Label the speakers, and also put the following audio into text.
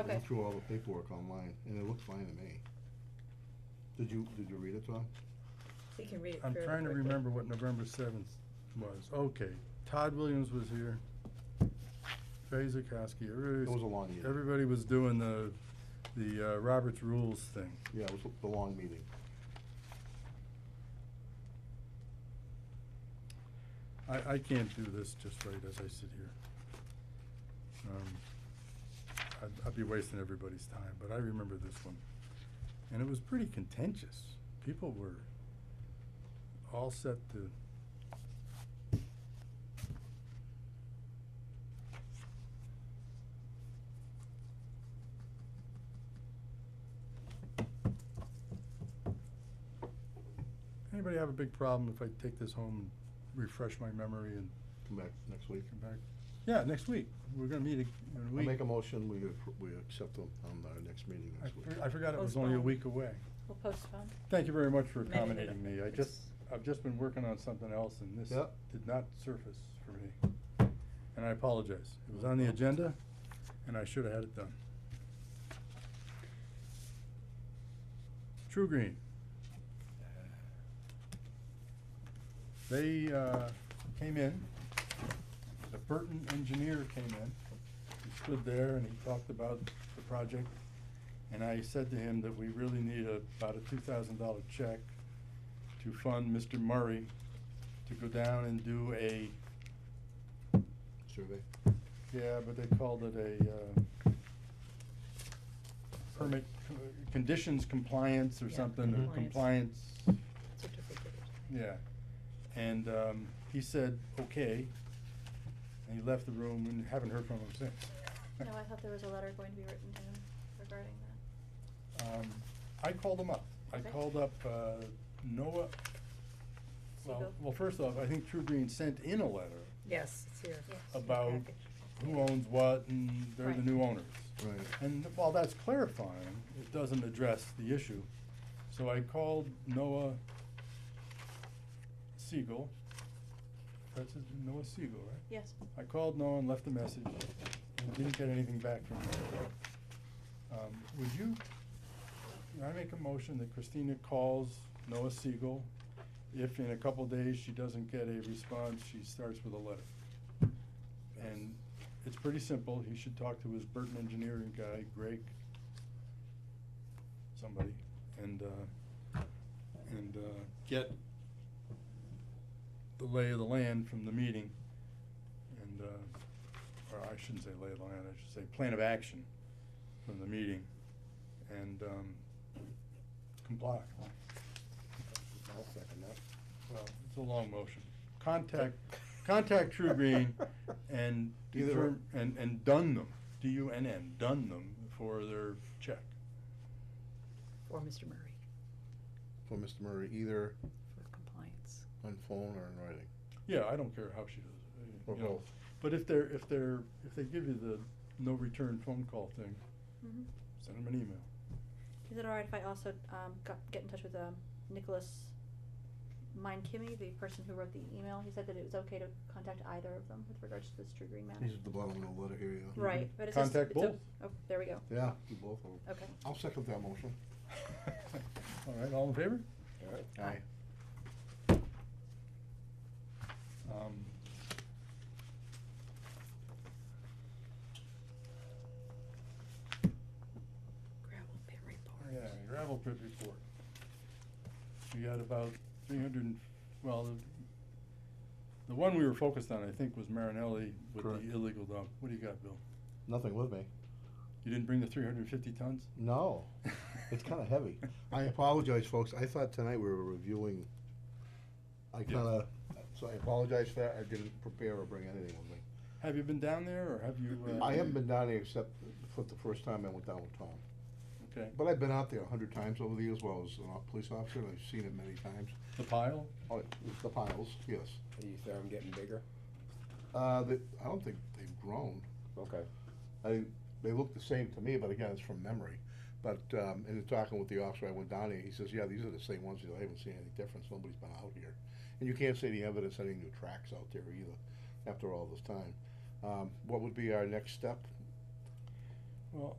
Speaker 1: I went
Speaker 2: Okay.
Speaker 1: through all the paperwork online, and it looked fine to me. Did you, did you read it, Tom?
Speaker 2: We can read it
Speaker 3: I'm
Speaker 2: fairly
Speaker 3: trying to
Speaker 2: quickly.
Speaker 3: remember what November seventh was. Okay, Todd Williams was here. Fay Zakowski,
Speaker 1: It was
Speaker 3: everybody
Speaker 1: a
Speaker 3: was,
Speaker 1: long year.
Speaker 3: everybody was doing the, the uh, Roberts Rules thing.
Speaker 1: Yeah, it was the long meeting.
Speaker 3: I, I can't do this just right as I sit here. Um, I'd, I'd be wasting everybody's time, but I remember this one. And it was pretty contentious. People were all set to. Anybody have a big problem if I take this home and refresh my memory and
Speaker 1: Come back next week.
Speaker 3: Come back. Yeah, next week. We're gonna meet a- in a
Speaker 1: I
Speaker 3: week.
Speaker 1: make a motion, we, appro- we accept them on our next meeting
Speaker 3: I
Speaker 1: next week.
Speaker 3: for- I forgot it was only a
Speaker 2: Postpone.
Speaker 3: week away.
Speaker 2: We'll postpone.
Speaker 3: Thank you very much for
Speaker 2: Maybe they don't-
Speaker 3: accommodating me. I just, I've just been working on something else and this
Speaker 1: Yep.
Speaker 3: did not surface for me. And I apologize. It was on the agenda and I should have had it done. True Green. They, uh, came in, the Burton engineer came in, he stood there and he talked about the project. And I said to him that we really need a, about a two thousand dollar check to fund Mr. Murray to go down and do a,
Speaker 1: Survey?
Speaker 3: yeah, but they called it a, uh, permit, uh, conditions compliance or
Speaker 2: Yeah,
Speaker 3: something, or
Speaker 2: compliance.
Speaker 3: compliance,
Speaker 2: Certificate or something.
Speaker 3: yeah. And, um, he said, okay, and he left the room and haven't heard from him since.
Speaker 4: No, I thought there was a letter going to be written to him regarding that.
Speaker 3: Um, I called him up. I
Speaker 4: Okay.
Speaker 3: called up, uh, Noah. Well,
Speaker 4: Siegel?
Speaker 3: well, first off, I think True Green sent in a letter
Speaker 2: Yes, it's here.
Speaker 4: Yes.
Speaker 2: It's in the
Speaker 3: about
Speaker 2: package.
Speaker 3: who owns what and they're the
Speaker 4: Right.
Speaker 3: new owners.
Speaker 1: Right.
Speaker 3: And while that's clarifying, it doesn't address the issue. So I called Noah Siegel. That's his, Noah Siegel, right?
Speaker 4: Yes.
Speaker 3: I called Noah and left a message and didn't get anything back from him. Um, would you, can I make a motion that Christina calls Noah Siegel? If in a couple days she doesn't get a response, she starts with a letter. And it's pretty simple, he should talk to his Burton engineering guy, Greg, somebody, and, uh, and, uh, get the lay of the land from the meeting, and, uh, or I shouldn't say lay of the land, I should say plan of action from the meeting, and, um, comply.
Speaker 1: I'll second that.
Speaker 3: Well, it's a long motion. Contact, contact True Green and
Speaker 1: Either
Speaker 3: determ- and, and dun them, D-U-N-N, dun them for their check.
Speaker 2: For Mr. Murray,
Speaker 1: For Mr. Murray, either
Speaker 2: for compliance.
Speaker 1: on phone or in writing.
Speaker 3: Yeah, I don't care how she does it,
Speaker 1: Or
Speaker 3: uh, you know.
Speaker 1: both.
Speaker 3: But if they're, if they're, if they give you the no return phone call thing,
Speaker 4: Mhm.
Speaker 3: send them an email.
Speaker 4: Is it all right if I also um, got, get in touch with um, Nicholas Mindkimmy, the person who wrote the email? He said that it was okay to contact either of them with regards to this True Green matter.
Speaker 1: These are the bottom of the letter here, yeah.
Speaker 4: Right,
Speaker 3: Mhm.
Speaker 4: but it's just.
Speaker 3: Contact
Speaker 4: it's o-
Speaker 3: both.
Speaker 4: Oh, there we go.
Speaker 1: Yeah, do both of them.
Speaker 4: Okay.
Speaker 1: I'll second that motion.
Speaker 3: All right, all in favor?
Speaker 1: Aye.
Speaker 3: Um,
Speaker 2: Gravel pit report.
Speaker 3: oh, Yeah, gravel pit report. We got about three hundred and, well, the, the one we were focused on, I think, was Marinelli with
Speaker 1: Correct.
Speaker 3: the illegal dump. What do you got, Bill?
Speaker 1: Nothing with me.
Speaker 3: You didn't bring the three hundred and fifty tons?
Speaker 1: No, it's kinda heavy. I apologize, folks. I thought tonight we were reviewing. I kinda, so I apologize for that. I didn't prepare or bring anything with me.
Speaker 3: Have you been down there, or have you? uh,
Speaker 1: I haven't been down there except for the first time I went down with Tom.
Speaker 3: Okay,
Speaker 1: But I've been out there a hundred times over the years while I was a police officer, and I've seen it many times.
Speaker 3: the pile?
Speaker 1: Oh, it- the piles, yes.
Speaker 5: Do you see them getting bigger?
Speaker 1: Uh, they, I don't think they've grown.
Speaker 5: Okay.
Speaker 1: I, they look the same to me, but again, it's from memory. But, um, in talking with the officer, I went down there, he says, yeah, these are the same ones, He goes, I haven't seen any difference, nobody's been out here. And you can't see the evidence of any new tracks out there either, after all this time. Um, what would be our next step?
Speaker 3: Well,